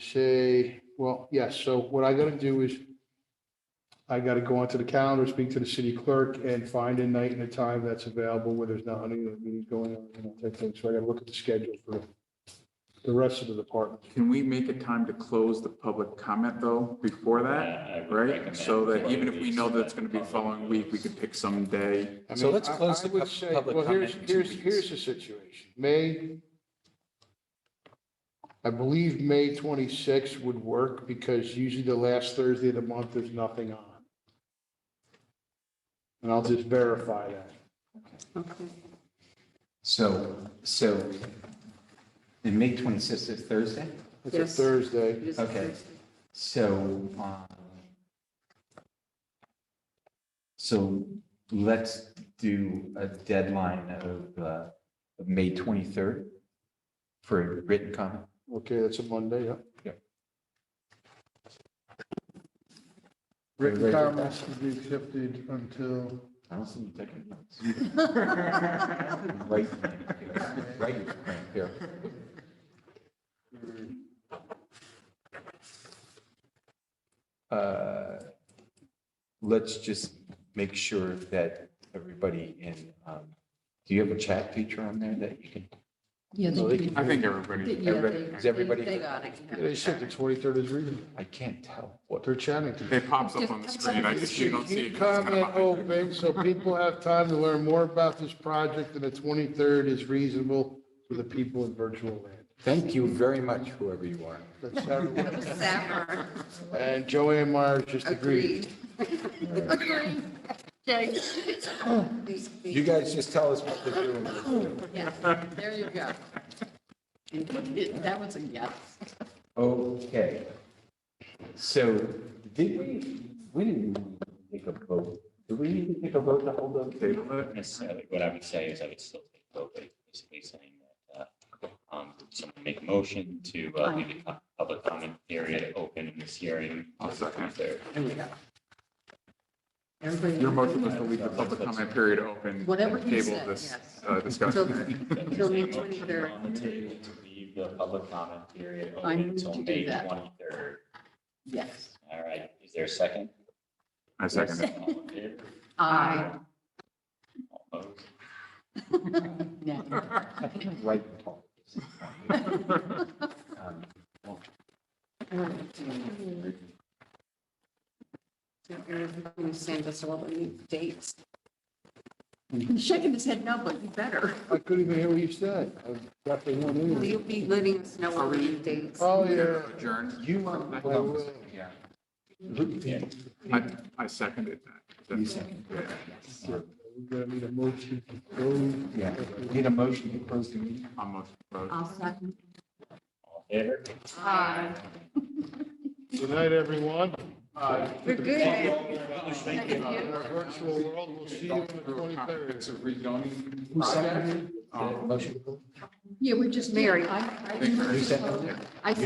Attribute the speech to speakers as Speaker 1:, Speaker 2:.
Speaker 1: say, well, yes, so what I gotta do is I gotta go onto the calendar, speak to the city clerk and find a night and a time that's available where there's not any meetings going on, you know, type thing. So I gotta look at the schedule for the rest of the department.
Speaker 2: Can we make a time to close the public comment though before that,
Speaker 3: I would
Speaker 2: right?
Speaker 3: recommend
Speaker 2: So that
Speaker 3: before
Speaker 2: even
Speaker 3: you
Speaker 2: if we
Speaker 3: leave,
Speaker 2: know
Speaker 3: so
Speaker 2: that it's going to be the following week, we could pick some day.
Speaker 1: I
Speaker 4: So
Speaker 1: mean,
Speaker 4: let's
Speaker 1: I-
Speaker 4: close
Speaker 1: I
Speaker 4: the
Speaker 1: would
Speaker 4: pub-
Speaker 1: say-
Speaker 4: public
Speaker 1: Well, here's,
Speaker 4: comment in two
Speaker 1: here's,
Speaker 4: weeks.
Speaker 1: here's the situation. May, I believe May 26th would work because usually the last Thursday of the month, there's nothing on. And I'll just verify that.
Speaker 4: So, so, and May 26th is Thursday?
Speaker 1: It's a
Speaker 5: Yes.
Speaker 1: Thursday.
Speaker 5: It is a
Speaker 4: Okay.
Speaker 5: Thursday.
Speaker 4: So, um, so let's do a deadline of, uh, of May 23rd for a written comment.
Speaker 1: Okay, that's a Monday, yeah.
Speaker 4: Yeah.
Speaker 6: Written comments to be accepted until,
Speaker 4: I don't see you taking notes. Right, right here. Uh, Let's just make sure that everybody in, um, do you have a chat feature on there that you can?
Speaker 5: Yeah,
Speaker 1: So
Speaker 5: they,
Speaker 1: they
Speaker 5: do.
Speaker 1: can-
Speaker 2: I think
Speaker 5: yeah,
Speaker 2: everybody,
Speaker 5: they,
Speaker 4: Is
Speaker 5: they
Speaker 4: everybody-
Speaker 5: they got it. yeah.
Speaker 1: They said the 23rd is reading.
Speaker 4: I can't tell what.
Speaker 1: They're chatting.
Speaker 2: it pops up on the screen. I just, you don't see it.
Speaker 1: Keep
Speaker 2: 'cause it's kinda
Speaker 1: comment
Speaker 2: behind
Speaker 1: open
Speaker 2: you.
Speaker 1: so people have time to learn more about this project and the 23rd is reasonable for the people in virtual land.
Speaker 4: Thank you very much, whoever you are.
Speaker 1: That's how it works.
Speaker 5: That was sour.
Speaker 1: And Joanne Myers just agreed.
Speaker 5: Agreed. Agreed. Okay. These- these-
Speaker 4: You guys just tell us what to do.
Speaker 5: yeah, There you go. And it- That was a yes.
Speaker 4: Okay. So did we, we didn't take a vote. Did we need to take a vote to hold up?
Speaker 2: Table it.
Speaker 3: Necessarily, what I would say is I would still take vote, but basically saying that, uh, um, someone make a motion to, uh, leave the co- public comment period open in this hearing.
Speaker 2: I'll second.
Speaker 3: There.
Speaker 5: There we go. Everybody.
Speaker 2: Your motion was to leave the public comment period open.
Speaker 5: Whatever
Speaker 2: and
Speaker 5: he
Speaker 2: Table
Speaker 5: said,
Speaker 2: this
Speaker 5: yes.
Speaker 2: uh, discussion.
Speaker 5: Till-
Speaker 3: Is
Speaker 5: Till May
Speaker 3: there a
Speaker 5: 23rd.
Speaker 3: motion On the table to leave the public comment period
Speaker 5: I
Speaker 3: open
Speaker 5: move
Speaker 3: until
Speaker 5: to do
Speaker 3: May
Speaker 5: that.
Speaker 3: twenty-third.
Speaker 5: Yes.
Speaker 3: All right, is there a second?
Speaker 2: I second it.
Speaker 3: All in favor?
Speaker 5: I.
Speaker 3: All opposed?
Speaker 5: No.
Speaker 4: I think I'm right. Paul. Um,
Speaker 5: Aaron's gonna send us all the new dates. He's shaking his head no, but you better.
Speaker 1: I couldn't even hear what you said. I got the one
Speaker 5: Will
Speaker 1: in.
Speaker 5: you be letting us know all the new dates?
Speaker 1: Oh, yeah.
Speaker 2: Adjourned.
Speaker 4: You want, hold on. one second. Yeah. Look, you-
Speaker 2: I, I seconded that.
Speaker 4: you second.
Speaker 2: Yeah.
Speaker 1: We're gonna need a motion to go.
Speaker 4: Yeah. Need a motion to close the meeting?
Speaker 2: I'm a vote.
Speaker 5: I'll second.
Speaker 3: All in favor?
Speaker 5: Aye.
Speaker 1: Good night, everyone. Uh,
Speaker 5: We're good. Thank you.
Speaker 1: In our virtual world, we'll see you on the 23rd.
Speaker 2: Comprehensive rezoning
Speaker 4: Who seconded?
Speaker 2: Um,
Speaker 4: Motion.
Speaker 5: Yeah, we're just married. I, I.
Speaker 2: Thank you.
Speaker 4: You seconded?
Speaker 5: I